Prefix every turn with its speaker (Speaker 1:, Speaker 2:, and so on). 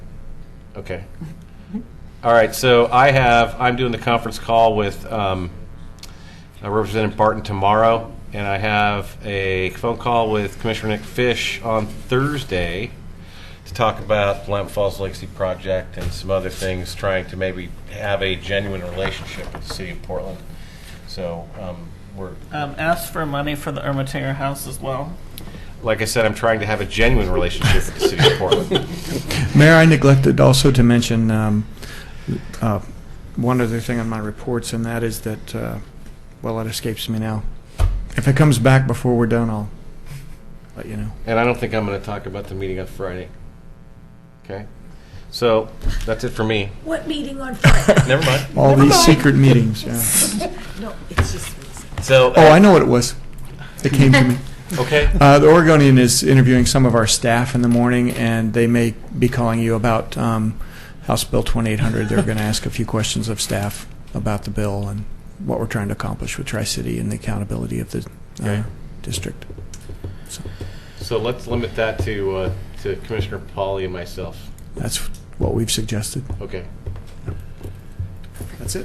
Speaker 1: Okay. All right, so I have, I'm doing the conference call with um, uh, Representative Barton tomorrow, and I have a phone call with Commissioner Nick Fish on Thursday to talk about Lamp Falls Legacy Project and some other things, trying to maybe have a genuine relationship with the city of Portland. So um, we're,
Speaker 2: Um, ask for money for the Ermitanger house as well.
Speaker 1: like I said, I'm trying to have a genuine relationship with the city of Portland.
Speaker 3: Mayor, I neglected also to mention um, uh, one other thing on my reports, and that is that, uh, well, it escapes me now. If it comes back before we're done, I'll let you know.
Speaker 1: And I don't think I'm going to talk about the meeting on Friday. Okay? So that's it for me.
Speaker 4: What meeting on Friday?
Speaker 1: Never mind.
Speaker 3: All these
Speaker 4: Never mind.
Speaker 3: secret meetings, yeah.
Speaker 4: No, it's just,
Speaker 1: So,
Speaker 3: Oh, I know what it was. It came to me.
Speaker 1: okay.
Speaker 3: Uh, The Oregonian is interviewing some of our staff in the morning, and they may be calling you about um, House Bill 2800. They're going to ask a few questions of staff about the bill and what we're trying to accomplish with Tri-City and the accountability of the
Speaker 1: Okay.
Speaker 3: uh, district.
Speaker 1: So let's limit that to, uh, to Commissioner Polly and myself.
Speaker 3: That's what we've suggested.
Speaker 1: Okay.